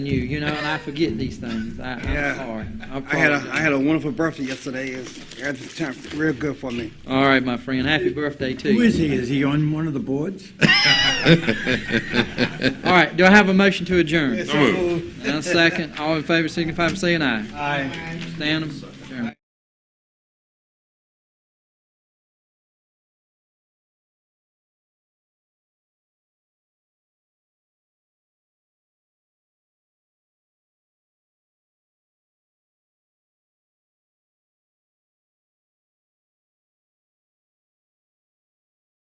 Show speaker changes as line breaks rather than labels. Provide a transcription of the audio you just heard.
you, you know, and I forget these things. I, I'm sorry. I
I had a
apologize.
I had a wonderful birthday yesterday. It's it's turned real good for me.
All right, my friend. Happy birthday to
Who
you.
is he? Is he on one of the boards?
All right, do I have a motion to adjourn?
So moved.
And a second. All in favor, signify by saying aye.
Aye.
Stand.